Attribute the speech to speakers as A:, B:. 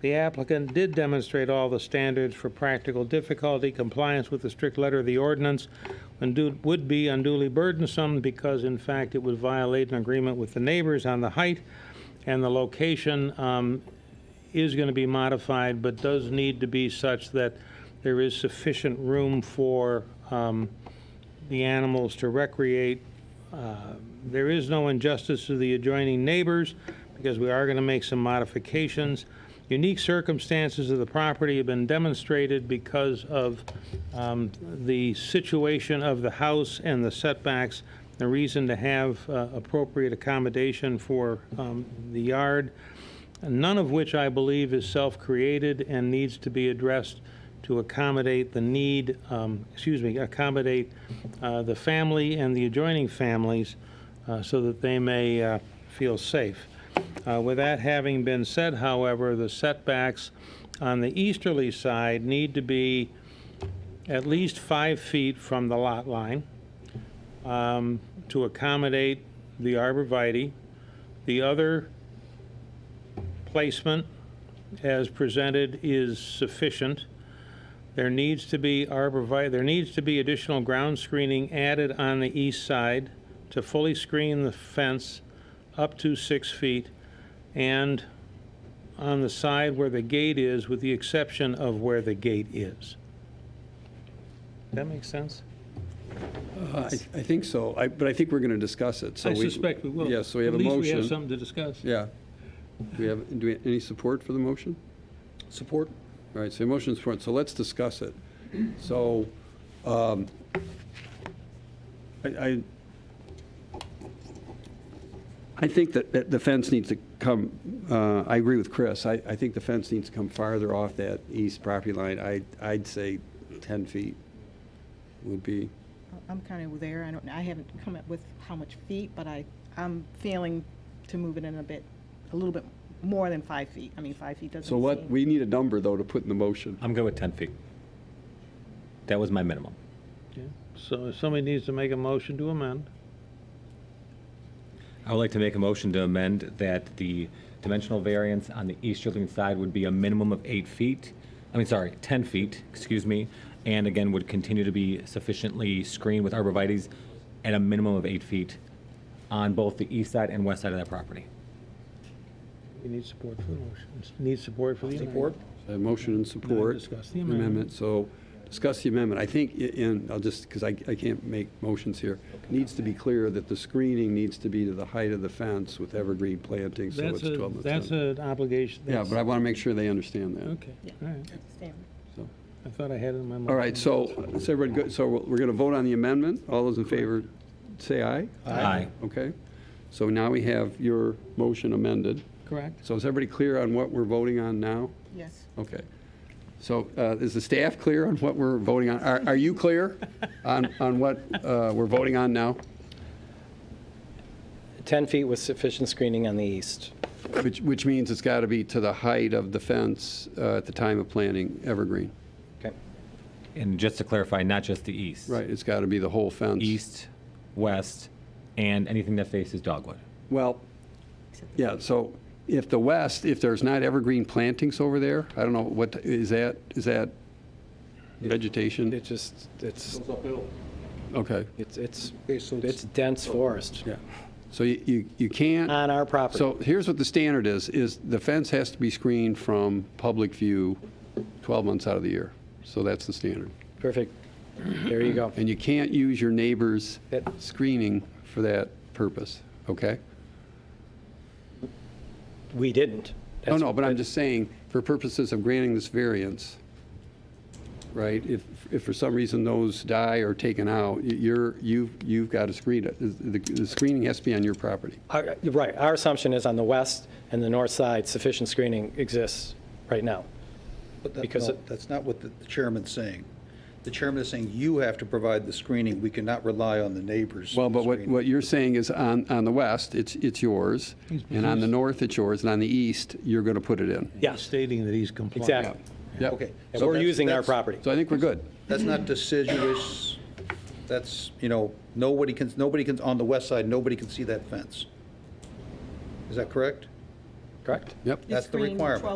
A: The applicant did demonstrate all the standards for practical difficulty, compliance with the strict letter of the ordinance, and do- would be unduly burdensome because in fact it would violate an agreement with the neighbors on the height, and the location um, is going to be modified, but does need to be such that there is sufficient room for um, the animals to recreate there is no injustice to the adjoining neighbors because we are going to make some modifications. Unique circumstances of the property have been demonstrated because of um, the situation of the house and the setbacks, the reason to have uh, appropriate accommodation for um, the yard, none of which I believe is self-created and needs to be addressed to accommodate the need, um, excuse me, accommodate uh, the family and the adjoining families uh, so that they may uh, feel safe. Uh, With that having been said, however, the setbacks on the easterly side need to be at least five feet from the lot line um, to accommodate the arborvitae. The other placement, as presented, is sufficient. There needs to be arborvitae, there needs to be additional ground screening added on the east side to fully screen the fence up to six feet and on the side where the gate is, with the exception of where the gate is. That makes sense?
B: I I think so, I- but I think we're going to discuss it, so.
A: I suspect we will.
B: Yes, so we have a
A: At least we have
B: motion.
A: something to discuss.
B: Yeah. Do we have, do we, any support for the motion?
C: Support?
B: All right, so motion support, so let's discuss it. So, um, I, I, I think that, that the fence needs to come, uh, I agree with Chris, I, I think the fence needs to come farther off that east property line. I, I'd say 10 feet would be,
D: I'm kind of there, I don't, I haven't come up with how much feet, but I, I'm feeling to move it in a bit, a little bit more than five feet. I mean, five feet doesn't
B: so what,
D: seem,
B: we need a number, though, to put in the motion.
C: I'm good with 10 feet. That was my minimum.
A: Yeah. So if somebody needs to make a motion to amend,
C: I would like to make a motion to amend that the dimensional variance on the easterly side would be a minimum of eight feet, I mean, sorry, 10 feet, excuse me, and again, would continue to be sufficiently screened with arborvitae's at a minimum of eight feet on both the east side and west side of that property.
A: we need support for the motion, need support for the amendment.
B: A motion and support.
A: discuss the amendment.
B: So discuss the amendment. I think, i- in I'll just, because I, I can't make motions here, needs to be clear that the screening needs to be to the height of the fence with evergreen planting, so it's
A: That's a,
B: 12 to
A: that's
B: 10.
A: an obligation.
B: Yeah, but I want to make sure they understand that.
A: Okay, all right.
D: Stand.
B: so.
A: I thought I had it in my mind.
B: All right, so, is everybody good? So we're going to vote on the amendment. All those in favor, say aye.
C: Aye.
B: Okay. So now we have your motion amended.
A: Correct?
B: So is everybody clear on what we're voting on now?
D: yes.
B: Okay. So uh, is the staff clear on what we're voting on? Are are you clear on on what uh, we're voting on now?
E: 10 feet with sufficient screening on the east.
B: Which which means it's got to be to the height of the fence uh, at the time of planting evergreen.
E: Okay.
C: And just to clarify, not just the east.
B: Right, it's got to be the whole fence.
C: East, west, and anything that faces dogwood.
B: Well, yeah, so if the west, if there's not evergreen plantings over there, I don't know, what, is that, is that vegetation?
E: It just, it's,
B: Okay,
E: it's, it's, it's dense
F: Oh.
E: forest
B: yeah. So you- you you can't.
E: on our property.
B: So here's what the standard is, is the fence has to be screened from public view 12 months out of the year. So that's the standard.
E: Perfect. There you go.
B: And you can't use your neighbor's
E: That-
B: screening for that purpose, okay?
E: We didn't.
B: No,
E: That's-
B: no, but I'm just saying, for purposes of granting this variance, right, if, if for some reason those die or taken out, y- you're, you've, you've got to screen it. The the screening has to be on your property.
E: our- Right, our assumption is on the west and the north side, sufficient screening exists right now.
F: But that-
E: Because
F: no,
E: it-
F: that's not what the the chairman's saying. The chairman is saying you have to provide the screening. We cannot rely on the neighbors.
B: Well, but what,
F: screening.
B: what you're saying is on, on the west, it's, it's yours, and on the north, it's yours, and on the east, you're going to put it in.
E: Yeah.
A: Stating that he's compliant.
E: Exactly.
B: Yep.
F: Okay.
E: And
F: so
E: we're
F: that's-
E: using our
F: that's-
E: property.
B: So I think we're good.
F: That's not deciduous. That's, you know, nobody can, nobody can, on the west side, nobody can see that fence. Is that correct?
E: Correct?
B: Yep.
F: That's the
D: Screen
F: requirement.